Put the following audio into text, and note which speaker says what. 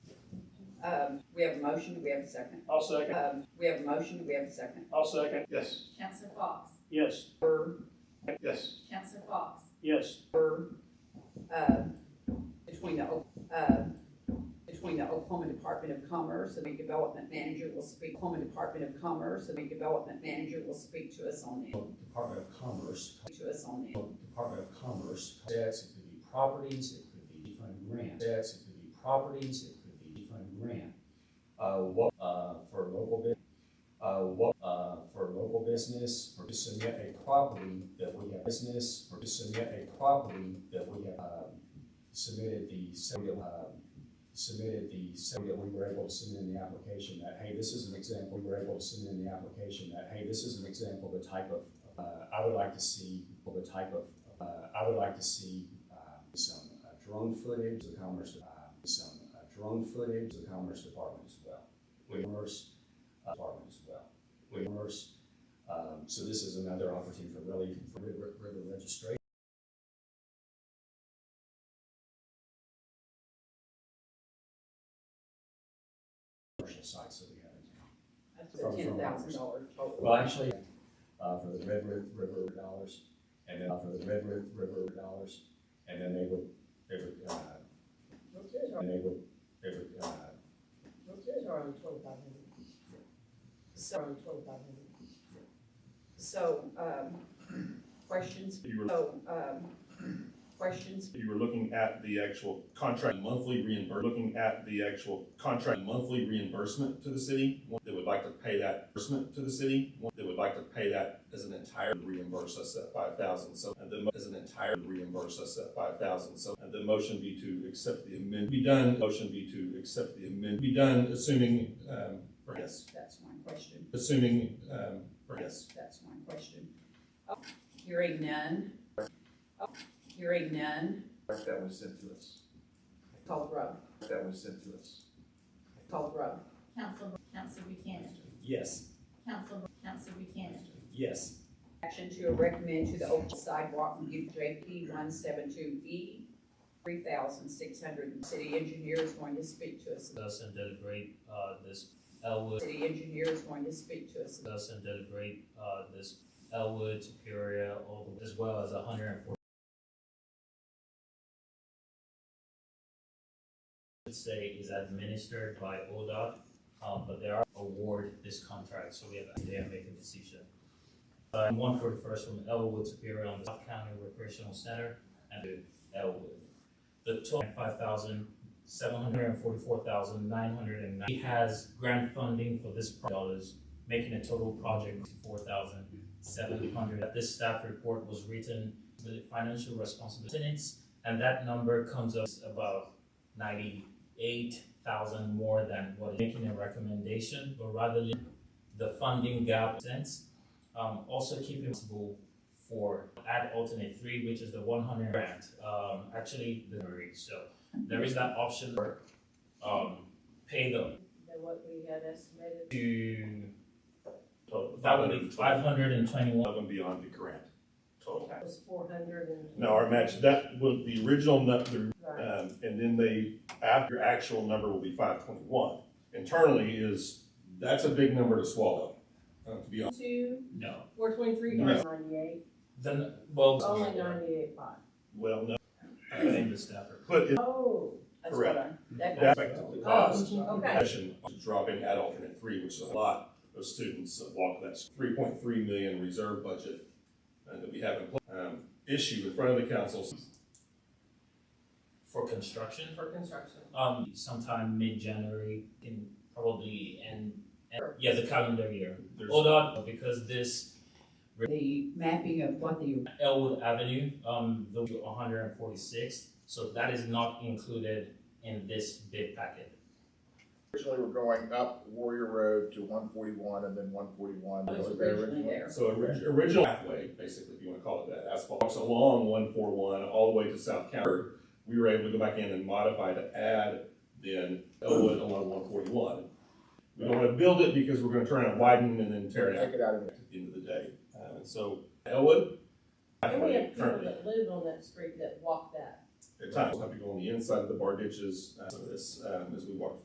Speaker 1: Um, we have a motion, do we have a second?
Speaker 2: I'll second.
Speaker 1: Um, we have a motion, do we have a second?
Speaker 2: I'll second.
Speaker 3: Yes.
Speaker 4: Counselor Fox,
Speaker 2: Yes.
Speaker 1: Burr,
Speaker 3: Yes.
Speaker 4: Counselor Fox,
Speaker 2: Yes.
Speaker 1: Burr, uh, between the, O- uh, between the Oklahoma Department of Commerce and the Development Manager will speak, Oklahoma Department of Commerce and the Development Manager will speak to us on it,
Speaker 5: Department of Commerce,
Speaker 1: to us on it.
Speaker 5: Department of Commerce, debts, it could be properties, it could be fund grant, debts, it could be properties, it could be fund grant. Uh, what, uh, for local bus, uh, what, uh, for local business, or to submit a property that we have business, or to submit a property that we have, um, submitted the, se- um, submitted the, se- that we were able to submit in the application that, hey, this is an example, we were able to submit in the application that, hey, this is an example of the type of, uh, I would like to see, well, the type of, uh, I would like to see, um, some uh, drone footage, the Commerce, um, some uh, drone footage, the Commerce Department as well. We immerse, uh, Department as well. We immerse, um, so this is another opportunity for really, for river, river registration. Commercial sites that we have in town.
Speaker 1: That's a ten thousand dollar total.
Speaker 5: Well, actually, uh, for the Red Ri- River dollars, and then uh, for the Red Ri- River dollars, and then they would, they would, uh, and they would, they would, uh,
Speaker 1: So, so, um, questions,
Speaker 6: You were,
Speaker 1: so, um, questions,
Speaker 6: you were looking at the actual contract monthly reimbursement, looking at the actual contract monthly reimbursement to the city. One that would like to pay that reimbursement to the city, one that would like to pay that as an entire reimburse us at five thousand, so, and then as an entire reimburse us at five thousand, so. And the motion be to accept the amend, be done, motion be to accept the amend, be done, assuming, um, or yes,
Speaker 1: that's my question,
Speaker 6: assuming, um, or yes.
Speaker 1: that's my question. Oh, Hearing none. Oh, Hearing none,
Speaker 7: that was sent to us,
Speaker 1: call the row,
Speaker 7: that was sent to us.
Speaker 1: call the row.
Speaker 4: Counselor, Counselor Buchanan,
Speaker 3: Yes.
Speaker 4: Counselor, Counselor Buchanan,
Speaker 3: Yes.
Speaker 1: Action to recommend to the Oak Sidewalk Review JP one seven two E, three thousand six hundred, city engineer is going to speak to us,
Speaker 8: Thus and did a great, uh, this Elwood,
Speaker 1: city engineer is going to speak to us,
Speaker 8: thus and did a great, uh, this Elwood, Superior, all the- as well as a hundred and forty. Should say is administered by ODOT, um, but they are award this contract, so we have, they are making a decision. Uh, one for the first from Elwood Superior on the South County Recreational Center and to Elwood. The total five thousand seven hundred and forty-four thousand nine hundred and ninety has grant funding for this pro- dollars, making a total project four thousand seven hundred. This staff report was written with the financial responsibility tenants, and that number comes up about ninety-eight thousand more than what is making a recommendation, but rather than the funding gap sense. Um, also keeping possible for add alternate three, which is the one hundred grant, um, actually, the, so there is that option for um pay them
Speaker 9: than what we had estimated.
Speaker 8: to that would be five hundred and twenty one
Speaker 6: Above and beyond the grant total.
Speaker 9: It was four hundred and.
Speaker 6: No, our match, that was the original, nu- the
Speaker 9: Right.
Speaker 6: Um, and then they, after your actual number will be five twenty-one. Internally is, that's a big number to swallow, uh, to be honest.
Speaker 9: Two,
Speaker 8: no
Speaker 9: four twenty-three,
Speaker 6: No.
Speaker 9: ninety-eight,
Speaker 8: then well
Speaker 1: Oh
Speaker 8: uh,
Speaker 9: only ninety-eight five.
Speaker 6: Well, no,
Speaker 8: I named the staffer
Speaker 6: but it-
Speaker 9: Oh,
Speaker 1: that's what I,
Speaker 6: that's
Speaker 1: that,
Speaker 6: effectively the cost.
Speaker 9: oh, okay.
Speaker 6: Session to drop in at alternate three, which is a lot of students that walk that three point three million reserve budget uh, that we have in, pla- um, issue in front of the council.
Speaker 8: for construction
Speaker 9: For construction.
Speaker 8: um sometime mid January can probably end, end yeah the calendar year.
Speaker 6: There's-
Speaker 8: Hold on because this
Speaker 1: the mapping of what the
Speaker 8: Elwood Avenue, um, the one hundred and forty-sixth, so that is not included in this bid packet.
Speaker 7: Originally, we're going up Warrior Road to one forty-one and then one forty-one.
Speaker 1: was originally there.
Speaker 6: So orig- original pathway, basically, if you want to call it that, asphalt walks along one four one all the way to South County. We were able to go back in and modify to add then Elwood along one forty one. We don't want to build it because we're going to try and widen and then tear it out
Speaker 7: Take it out of there.
Speaker 6: at the end of the day. Um, and so Elwood
Speaker 9: And we have
Speaker 6: pathway
Speaker 9: people
Speaker 6: currently
Speaker 9: that live on that street that walk that.
Speaker 6: at times have to go on the inside of the bar ditches. Uh, so this um, as we walk